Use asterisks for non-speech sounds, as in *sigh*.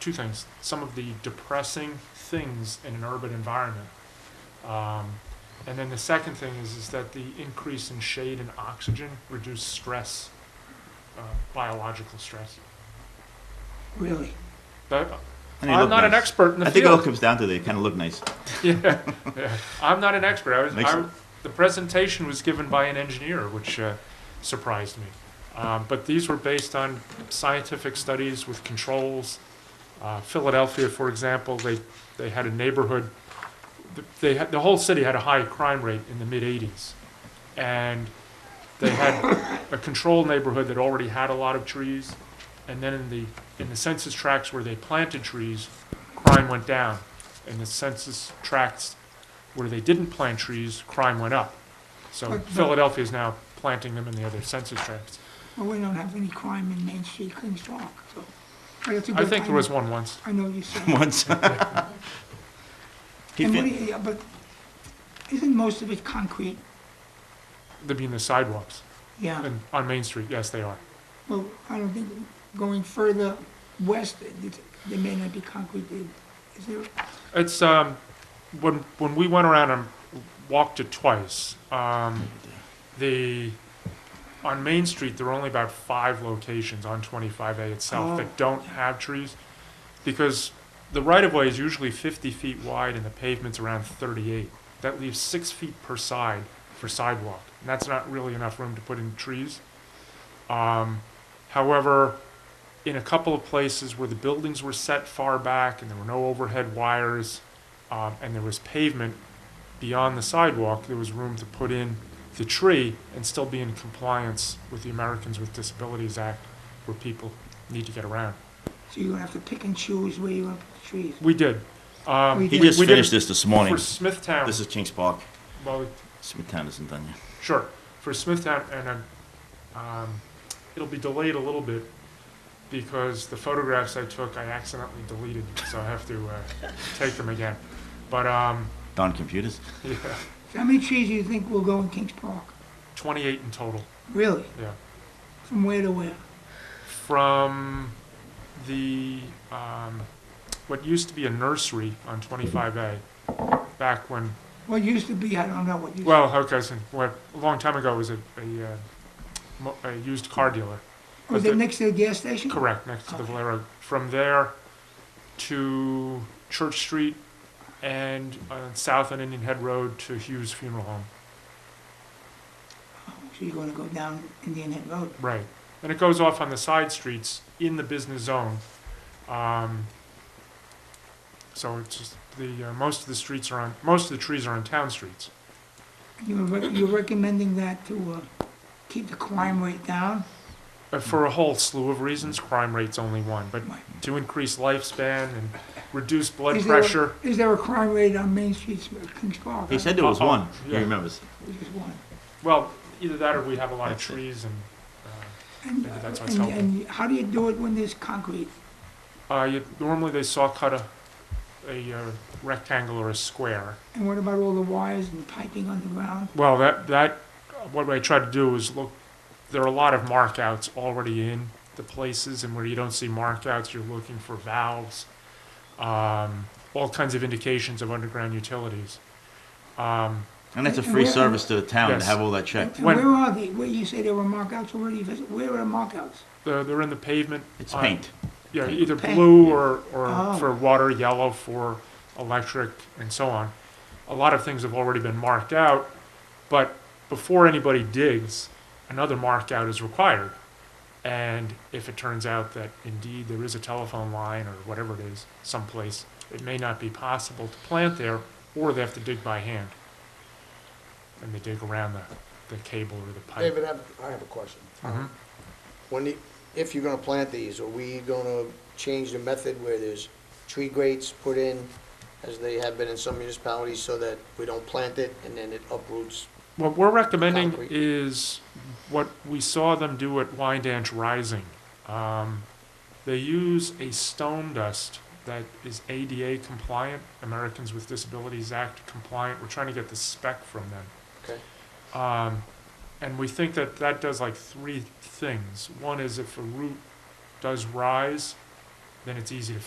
two things. Some of the depressing things in an urban environment. Um, and then the second thing is, is that the increase in shade and oxygen reduce stress, uh, biological stress. Really? But And they I'm look not an nice. expert in the I think it all field. comes down to they kind of look nice. *laughs* *laughs* yeah, yeah. I'm not an expert. I was, Makes I, it- the presentation was given by an engineer, which uh, surprised me. Um, but these were based on scientific studies with controls. Uh, Philadelphia, for example, they, they had a neighborhood, th- they had, the whole city had a high crime rate in the mid 80s. And they had a control neighborhood that already had a lot of trees. And then in the, in the census tracts where they planted trees, crime went down. In the census tracts where they didn't plant trees, crime went up. So But- but- Philadelphia is now planting them in the other census tracts. Well, we don't have any crime in Main Street, Queens Park, so. but it's a I good think there time. was one once. I know you said. *laughs* Once. He And fin- what do you- yeah, but isn't most of it concrete? They mean the sidewalks Yeah, and on Main Street. Yes, they are. well, I don't think, going further west, it- there may not be concrete. Is there, It's um, when when we went around and walked it twice. Um, the on Main Street there are only about five locations on 25A itself Oh. that don't have trees, because the right of way is usually 50 feet wide and the pavement's around 38. That leaves six feet per side for sidewalk, and that's not really enough room to put in trees. Um, however, in a couple of places where the buildings were set far back and there were no overhead wires um, and there was pavement beyond the sidewalk, there was room to put in the tree and still be in compliance with the Americans with Disabilities Act where people need to get around. so you're gonna have to pick and choose where you want to put the trees? We did. Um, We He did- just we did finished this this morning. For Smithtown, This is Kings Park. well, Smithtown isn't done yet. Sure. For Smithtown, and um, um, it'll be delayed a little bit because the photographs I took I accidentally deleted, so I have to uh, take them again. But um, Darn computers. yeah, So How many trees do you think will go in Kings Park? 28 in total. Really? Yeah, From where to where? from the um, what used to be a nursery on 25A, back when What used to be, I don't know what used. well, okay, so what a long time ago was a a, uh, mo- a used car dealer. Was it next to the gas station? Correct, next to the Okay. Valero. From there to Church Street and uh, south on Indian Head Road to Hughes Funeral Home. Oh, So you're gonna go down Indian Head Road? Right. And it goes off on the side streets in the business zone. Um, so it's just the uh, most of the streets are on most of the trees are on town streets. You're, rec- you're recommending that to, uh, keep the crime rate down? But for a whole slew of reasons, crime rate's only one. But to increase lifespan and reduce blood Is there a- pressure, Is there a crime rate on Main Street, of Kings Park? He said there was Uh-oh. one. He Yeah. remembers. Which is one. well, either that or we have a lot of That's it. trees and. Uh, And, Maybe that's what's and, helping. and how do you do it when there's concrete? Uh, you, normally they saw cut a, a uh, rectangle or a square. And what about all the wires and piping underground? Well, that, that, what I tried to do is look, there are a lot of markouts already in the places, and where you don't see markouts, you're looking for valves, um, all kinds of indications of underground utilities. Um, And that's a And free where- service to the town Yes. to have all that And checked. and When- where are they? Where you say there were markouts already, visit- where are the markouts? they're, they're in the pavement. It's on- paint. Yeah, either Paint. blue or, or Oh. for water, yellow for electric and so on. A lot of things have already been marked out, but before anybody digs, another mark out is required. And if it turns out that indeed there is a telephone line or whatever it is someplace, it may not be possible to plant there or they have to dig by hand. And they dig around the, the cable or the pipe. David, I have, I have a question. Mhm. When, you- if you're gonna plant these, are we gonna change the method where there's tree grates put in, as they have been in some municipalities, so that we don't plant it and then it uproots? What we're recommending Concrete. is what we saw them do at Wyandanch Rising. Um, they use a stone dust that is ADA compliant, Americans with Disabilities Act compliant. We're trying to get the spec from them. Okay. Um, and we think that that does like three things. One is if a root does rise, then it's easy to